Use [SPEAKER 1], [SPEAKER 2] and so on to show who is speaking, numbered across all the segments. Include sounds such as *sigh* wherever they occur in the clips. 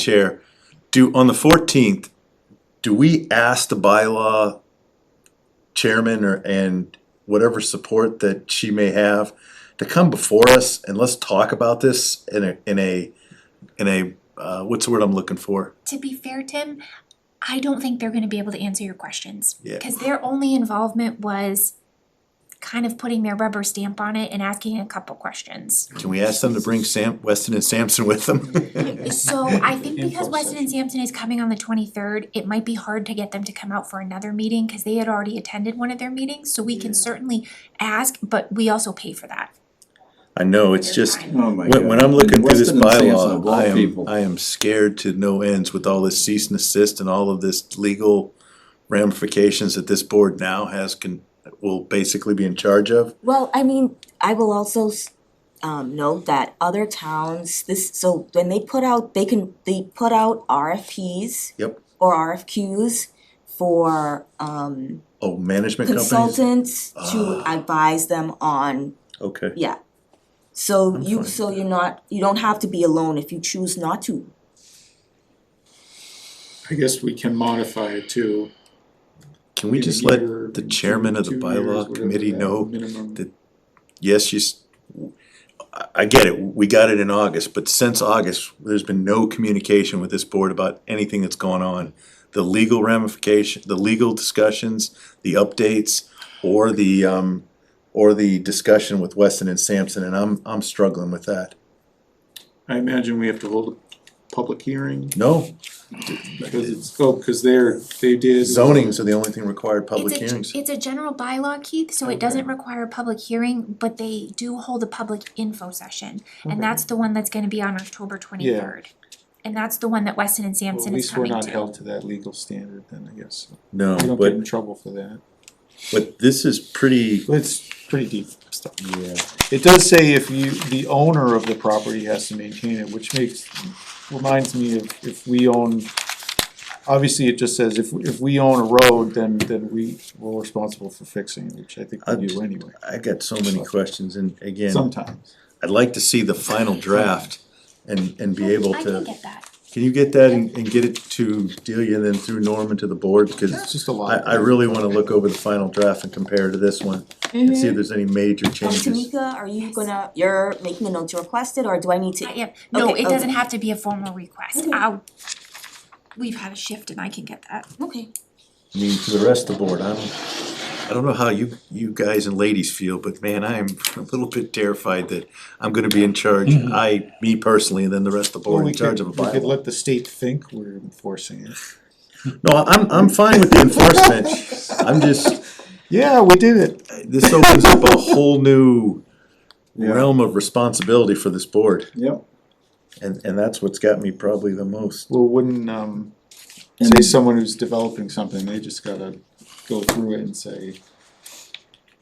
[SPEAKER 1] Chair, do, on the fourteenth, do we ask the bylaw chairman or, and whatever support that she may have to come before us and let's talk about this in a, in a, in a, uh, what's the word I'm looking for?
[SPEAKER 2] To be fair, Tim, I don't think they're gonna be able to answer your questions.
[SPEAKER 1] Yeah.
[SPEAKER 2] Cause their only involvement was kind of putting their rubber stamp on it and asking a couple questions.
[SPEAKER 1] Can we ask them to bring Sam, Weston and Sampson with them? *laughs*
[SPEAKER 2] So I think because
[SPEAKER 3] Info
[SPEAKER 2] Weston and Sampson is coming on the twenty-third, it might be hard to get them to come out for another meeting, cause they had already attended one of their meetings, so we can certainly ask, but we also pay for that.
[SPEAKER 1] I know, it's just,
[SPEAKER 3] Oh my
[SPEAKER 1] When, when I'm looking through this
[SPEAKER 3] Weston and Sampson, of
[SPEAKER 1] bylaw,
[SPEAKER 3] all
[SPEAKER 1] I am,
[SPEAKER 3] people.
[SPEAKER 1] I am scared to no ends with all this cease and assist and all of this legal ramifications that this board now has can, will basically be in charge of.
[SPEAKER 4] Well, I mean, I will also s- um, note that other towns, this, so when they put out, they can, they put out RFPs
[SPEAKER 1] Yep.
[SPEAKER 4] or RFQs for um,
[SPEAKER 1] Oh, management companies,
[SPEAKER 4] consultants to
[SPEAKER 1] Ah.
[SPEAKER 4] advise them on,
[SPEAKER 1] okay,
[SPEAKER 4] yeah. So
[SPEAKER 1] I'm
[SPEAKER 4] you,
[SPEAKER 1] fine
[SPEAKER 4] so
[SPEAKER 1] with
[SPEAKER 4] you're not, you don't have to be alone if you choose not to.
[SPEAKER 5] I guess we can modify it to.
[SPEAKER 1] can we
[SPEAKER 5] in a
[SPEAKER 1] just let
[SPEAKER 5] year,
[SPEAKER 1] the
[SPEAKER 5] in
[SPEAKER 1] chairman
[SPEAKER 5] two-
[SPEAKER 1] of the
[SPEAKER 5] two years,
[SPEAKER 1] bylaw
[SPEAKER 5] whatever
[SPEAKER 1] committee
[SPEAKER 5] that
[SPEAKER 1] know,
[SPEAKER 5] minimum-
[SPEAKER 1] that- yes, she's. I, I get it, we got it in August, but since August, there's been no communication with this board about anything that's going on. The legal ramification, the legal discussions, the updates, or the um, or the discussion with Weston and Sampson, and I'm, I'm struggling with that.
[SPEAKER 5] I imagine we have to hold a public hearing
[SPEAKER 1] No,
[SPEAKER 5] because it's, oh, because they're, they did.
[SPEAKER 1] zonings are the only thing required public
[SPEAKER 2] It's a-
[SPEAKER 1] hearings.
[SPEAKER 2] It's a general bylaw, Keith, so it
[SPEAKER 5] Okay.
[SPEAKER 2] doesn't require a public hearing, but they do hold a public info session.
[SPEAKER 5] Okay.
[SPEAKER 2] And that's the one that's gonna be on October twenty-third. And that's the one that Weston and
[SPEAKER 5] Well, at
[SPEAKER 2] Sampson is
[SPEAKER 5] least we're
[SPEAKER 2] coming
[SPEAKER 5] not
[SPEAKER 2] to.
[SPEAKER 5] held to that legal standard then, I guess.
[SPEAKER 1] No,
[SPEAKER 5] We don't get in
[SPEAKER 1] but,
[SPEAKER 5] trouble for that.
[SPEAKER 1] but this is pretty,
[SPEAKER 5] It's pretty deep stuff. Yeah. It does say if you, the owner of the property has to maintain it, which makes, reminds me of if we own, obviously it just says if, if we own a road, then, then we, we're responsible for fixing it, which I think we do anyway,
[SPEAKER 1] I got so many questions, and again,
[SPEAKER 5] sometimes.
[SPEAKER 1] I'd like to see the final draft and, and be able
[SPEAKER 2] I
[SPEAKER 1] to.
[SPEAKER 2] can get that.
[SPEAKER 1] Can you get that and, and get it to Delia and then through Norman to the board,
[SPEAKER 5] It's
[SPEAKER 1] because
[SPEAKER 5] just a
[SPEAKER 1] I,
[SPEAKER 5] lot.
[SPEAKER 1] I really wanna look over the final draft and compare to this one, and
[SPEAKER 2] Mm-hmm.
[SPEAKER 1] see if there's any major
[SPEAKER 4] And
[SPEAKER 1] changes.
[SPEAKER 4] Tamika, are you gonna, you're making a note to request it or do I need to?
[SPEAKER 2] I am, no, it
[SPEAKER 4] Okay,
[SPEAKER 2] doesn't
[SPEAKER 4] okay.
[SPEAKER 2] have to be a formal request.
[SPEAKER 4] Okay.
[SPEAKER 2] I'll, we've had a shift and I can get that.
[SPEAKER 4] Okay,
[SPEAKER 1] I mean, to the rest of the board, I don't, I don't know how you, you guys and ladies feel, but man, I am *laughs* a little bit terrified that I'm gonna be in charge, I, me personally, and then the rest of the board in charge of a
[SPEAKER 5] Mm-hmm. We could
[SPEAKER 1] bylaw.
[SPEAKER 5] let the state think we're enforcing it.
[SPEAKER 1] No, I'm, I'm fine with the
[SPEAKER 5] *laughs*
[SPEAKER 1] enforcement, I'm just,
[SPEAKER 5] Yeah, we did it.
[SPEAKER 1] this opens up
[SPEAKER 3] *laughs*
[SPEAKER 1] a whole new realm of responsibility for this board.
[SPEAKER 5] Yep.
[SPEAKER 1] And, and that's what's got me probably the most.
[SPEAKER 5] Well, wouldn't, um, say someone who's developing something, they just gotta go through it and say,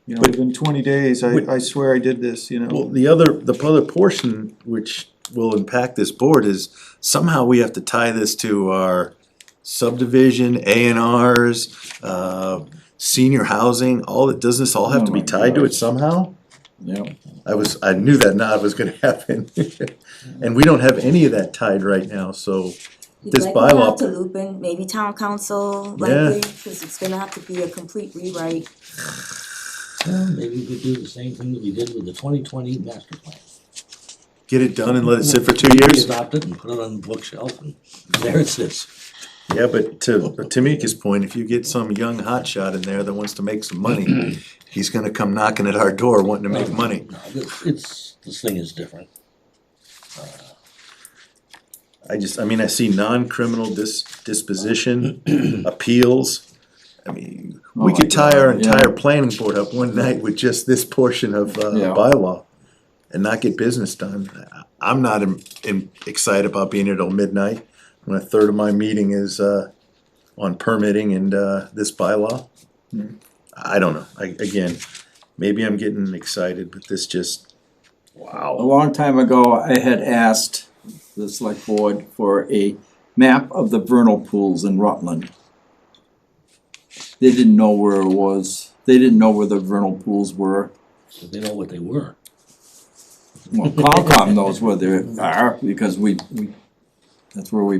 [SPEAKER 5] you know,
[SPEAKER 1] But-
[SPEAKER 5] within twenty days, I,
[SPEAKER 1] Would-
[SPEAKER 5] I swear I did this, you
[SPEAKER 1] Well,
[SPEAKER 5] know.
[SPEAKER 1] the other, the other portion which will impact this board is somehow we have to tie this to our subdivision, A and Rs, uh, senior housing, all, that doesn't this all have to be
[SPEAKER 3] Oh my
[SPEAKER 1] tied to it
[SPEAKER 3] gosh.
[SPEAKER 1] somehow?
[SPEAKER 3] Yep.
[SPEAKER 1] I was, I knew that nod was gonna *laughs* happen. And we don't have any of that tied right now, so,
[SPEAKER 4] You'd
[SPEAKER 1] This
[SPEAKER 4] likely
[SPEAKER 1] bylaw-
[SPEAKER 4] have to loop in maybe town council
[SPEAKER 1] Yeah.
[SPEAKER 4] likely, cause it's gonna have to be a complete rewrite.
[SPEAKER 6] Well, maybe we could do the same thing that we did with the twenty twenty master plan.
[SPEAKER 1] get it done and let it sit for two years?
[SPEAKER 6] We adopt it and put it on the bookshelf and there it sits.
[SPEAKER 1] Yeah, but to Tamika's point, if you get some young hotshot in there that wants to make some money, he's gonna come knocking at our door wanting to make money.
[SPEAKER 6] No, It's, it's, this thing is different.
[SPEAKER 1] I just, I mean, I see non-criminal dis-
[SPEAKER 3] *clears throat*
[SPEAKER 1] disposition, appeals. I mean, we
[SPEAKER 3] Oh
[SPEAKER 1] could
[SPEAKER 3] my
[SPEAKER 1] tie our
[SPEAKER 3] God,
[SPEAKER 1] entire planning board up one night with just this portion of uh,
[SPEAKER 3] Yeah.
[SPEAKER 1] bylaw and not get business done. I- I'm not in- in- excited about being here till midnight, when a third of my meeting is uh, on permitting and uh, this bylaw.
[SPEAKER 3] Hmm.
[SPEAKER 1] I don't know, I, again, maybe I'm getting excited, but this just,
[SPEAKER 3] A
[SPEAKER 1] wow.
[SPEAKER 3] long time ago, I had asked the select board for a map of the vernal pools in Rutland. They didn't know where it was, they didn't know where the vernal pools were.
[SPEAKER 6] But They know what they were.
[SPEAKER 3] Well, Concom knows where they are, because we, we, that's where we